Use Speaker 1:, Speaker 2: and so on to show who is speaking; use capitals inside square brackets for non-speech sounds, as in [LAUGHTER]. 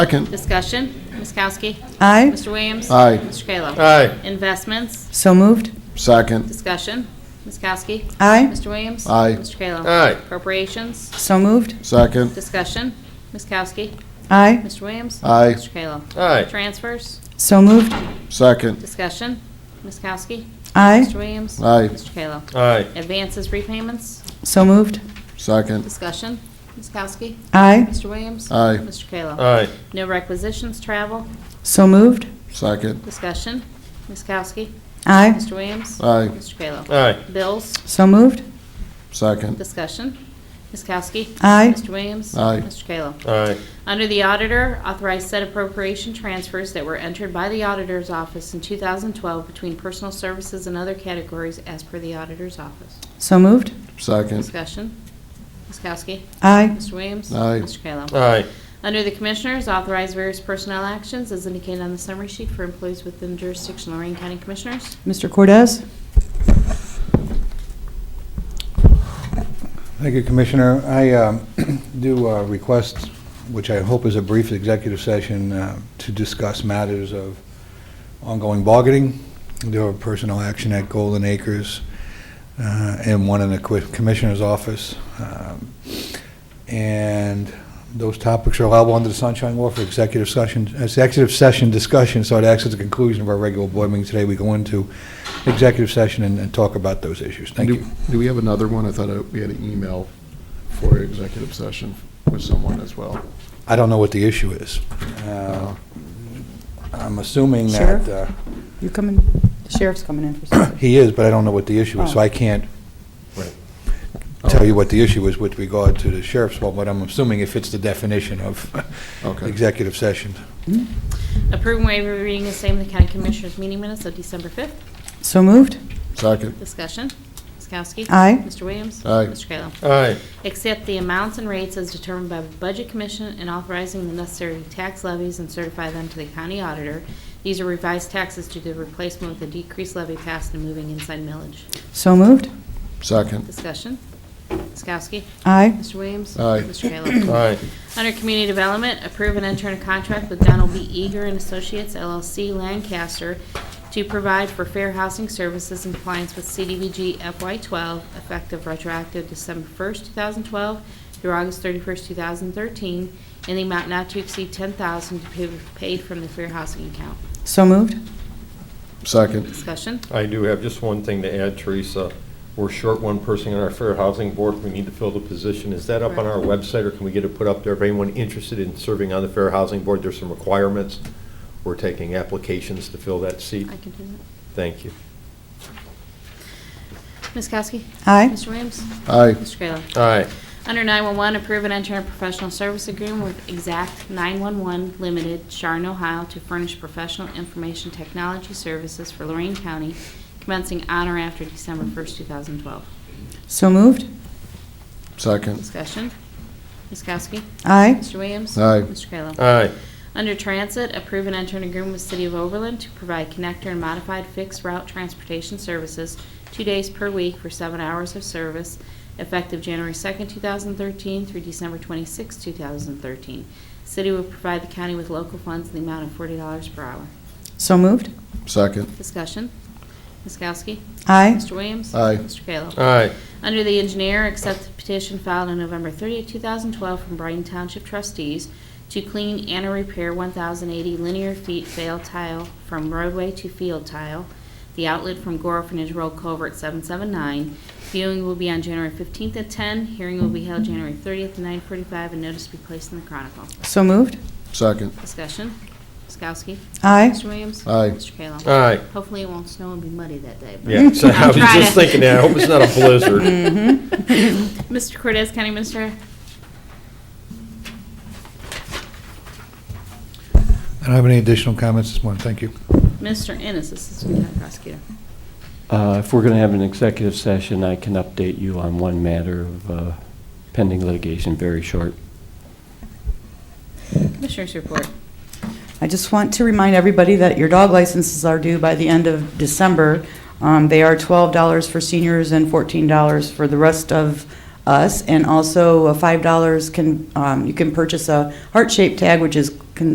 Speaker 1: Second.
Speaker 2: Discussion, Ms. Kowski.
Speaker 3: Aye.
Speaker 2: Mr. Williams.
Speaker 1: Aye.
Speaker 2: Mr. Kayla.
Speaker 4: Aye.
Speaker 2: Investments,
Speaker 3: So moved.
Speaker 1: Second.
Speaker 2: discussion, Ms. Kowski.
Speaker 3: Aye.
Speaker 2: Mr. Williams.
Speaker 1: Aye.
Speaker 2: Mr. Kayla.
Speaker 4: Aye.
Speaker 2: Appropriations,
Speaker 3: So moved.
Speaker 1: Second.
Speaker 2: discussion, Ms. Kowski.
Speaker 3: Aye.
Speaker 2: Mr. Williams.
Speaker 1: Aye.
Speaker 2: Mr. Kayla.
Speaker 4: Aye.
Speaker 2: Transfers,
Speaker 3: So moved.
Speaker 1: Second.
Speaker 2: discussion, Ms. Kowski.
Speaker 3: Aye.
Speaker 2: Mr. Williams.
Speaker 1: Aye.
Speaker 2: Mr. Kayla.
Speaker 4: Aye.
Speaker 2: Advances, repayments,
Speaker 3: So moved.
Speaker 1: Second.
Speaker 2: discussion, Ms. Kowski.
Speaker 3: Aye.
Speaker 2: Mr. Williams.
Speaker 1: Aye.
Speaker 2: Mr. Kayla.
Speaker 4: Aye.
Speaker 2: No requisitions, travel,
Speaker 3: So moved.
Speaker 1: Second.
Speaker 2: discussion, Ms. Kowski.
Speaker 3: Aye.
Speaker 2: Mr. Williams.
Speaker 1: Aye.
Speaker 2: Mr. Kayla.
Speaker 4: Aye.
Speaker 2: Bills,
Speaker 3: So moved.
Speaker 1: Second.
Speaker 2: discussion, Ms. Kowski.
Speaker 3: Aye.
Speaker 2: Mr. Williams.
Speaker 1: Aye.
Speaker 2: Mr. Kayla.
Speaker 4: Aye.
Speaker 2: Under the auditor, authorize said appropriation transfers that were entered by the auditor's office in 2012 between personal services and other categories as per the auditor's office.
Speaker 3: So moved.
Speaker 1: Second.
Speaker 2: Discussion, Ms. Kowski.
Speaker 3: Aye.
Speaker 2: Mr. Williams.
Speaker 1: Aye.
Speaker 2: Mr. Kayla.
Speaker 4: Aye.
Speaker 2: Under the Commissioners, authorize various personnel actions as indicated on the summary sheet for employees within jurisdiction of Lorraine County Commissioners.
Speaker 3: Mr. Cordez?
Speaker 5: Thank you, Commissioner. I um, [CLEARS THROAT] do uh, request, which I hope is a brief executive session, uh, to discuss matters of ongoing bargaining, there were personnel action at Golden Acres, uh, and one in the qui- Commissioner's office. Um, And those topics are allowable under the Sunshine Law for executive session, executive session discussion, so it acts as the conclusion of our regular board meeting today. We go into executive session and and talk about those issues. Thank
Speaker 1: Do-
Speaker 5: you.
Speaker 1: Do we have another one? I thought uh, we had an email for executive session with someone as well.
Speaker 5: I don't know what the issue is. Uh, I'm assuming that uh,
Speaker 3: You coming, the sheriff's coming in for something.
Speaker 5: he is, but I don't know what the issue is, so
Speaker 3: Oh.
Speaker 5: I can't
Speaker 1: Oh.
Speaker 5: tell you what the issue is with regard to the sheriff's fault, but I'm assuming it fits the definition of
Speaker 1: Okay.
Speaker 5: executive session.
Speaker 3: Hmm?
Speaker 2: Approve and waive reading the same in the County Commissioners meeting minutes of December 5th.
Speaker 3: So moved.
Speaker 1: Second.
Speaker 2: Discussion, Ms. Kowski.
Speaker 3: Aye.
Speaker 2: Mr. Williams.
Speaker 1: Aye.
Speaker 2: Mr. Kayla.
Speaker 4: Aye.
Speaker 2: Accept the amounts and rates as determined by the Budget Commission and authorizing the necessary tax levies and certify them to the county auditor. These are revised taxes due to the replacement with the decreased levy passed and moving inside millage.
Speaker 3: So moved.
Speaker 1: Second.
Speaker 2: Discussion. Ms. Kowski.
Speaker 3: Aye.
Speaker 2: Mr. Williams.
Speaker 1: Aye.
Speaker 2: Mr. Kayla.
Speaker 4: Aye.
Speaker 2: Under Community Development, approve and enter a contract with Donald B. Eager and Associates LLC Lancaster to provide for fair housing services in compliance with CDVG FY12, effective retroactive December 1st, 2012 through August 31st, 2013, in the amount not to exceed $10,000 to be paid from the fair housing account.
Speaker 3: So moved.
Speaker 1: Second.
Speaker 2: Discussion?
Speaker 4: I do have just one thing to add, Teresa. We're short one person on our Fair Housing Board. We need to fill the position. Is that up on our website, or can we get it put up there? If anyone interested in serving on the Fair Housing Board, there's some requirements. We're taking applications to fill that seat.
Speaker 2: I can do that.
Speaker 4: Thank you.
Speaker 2: Ms. Kowski?
Speaker 3: Aye.
Speaker 2: Mr. Williams?
Speaker 1: Aye.
Speaker 2: Mr. Kayla?
Speaker 4: Aye.
Speaker 2: Under 911, approve and enter a professional service agreement with Exact 911 Limited, Sharon, Ohio, to furnish professional information technology services for Lorraine County commencing on or after December 1st, 2012.
Speaker 3: So moved.
Speaker 1: Second.
Speaker 2: Discussion. Ms. Kowski?
Speaker 3: Aye.
Speaker 2: Mr. Williams?
Speaker 1: Aye.
Speaker 2: Mr. Kayla?
Speaker 4: Aye.
Speaker 2: Under Transit, approve and enter an agreement with City of Overland to provide connector and modified fixed route transportation services two days per week for seven hours of service, effective January 2nd, 2013 through December 26th, 2013. City will provide the county with local funds in the amount of $40 per hour.
Speaker 3: So moved.
Speaker 1: Second.
Speaker 2: Discussion. Ms. Kowski?
Speaker 3: Aye.
Speaker 2: Mr. Williams?
Speaker 1: Aye.
Speaker 2: Mr. Kayla?
Speaker 4: Aye.
Speaker 2: Under the engineer, accept the petition filed on November 30, 2012 from Brighton Township trustees to clean and or repair 1,080 linear feet fail tile from roadway to field tile, the outlet from Gore Orphanage Road Culvert 779. Viewing will be on January 15th at 10, hearing will be held January 30th at 9:45, and notice to be placed in the Chronicle.
Speaker 3: So moved.
Speaker 1: Second.
Speaker 2: Discussion, Ms. Kowski.
Speaker 3: Aye.
Speaker 2: Mr. Williams.
Speaker 1: Aye.
Speaker 2: Mr. Kayla.
Speaker 4: Aye.
Speaker 2: Hopefully it won't snow and be muddy that day. but-
Speaker 4: Yeah, so I was
Speaker 2: I'll try
Speaker 4: just
Speaker 2: to-
Speaker 4: thinking that. I hope it's not a blizzard.
Speaker 2: Mr. Cortez, County Minister.
Speaker 5: I don't have any additional comments this morning. Thank you.
Speaker 2: Mr. Ennis, Assistant County Prosecutor.
Speaker 6: Uh, If we're going to have an executive session, I can update you on one matter of uh, pending litigation, very short.
Speaker 2: Commissioners report.
Speaker 3: I just want to remind everybody that your dog licenses are due by the end of December. Um, They are $12 for seniors and $14 for the rest of us, and also uh, $5 can, um, you can purchase a heart-shaped tag, which is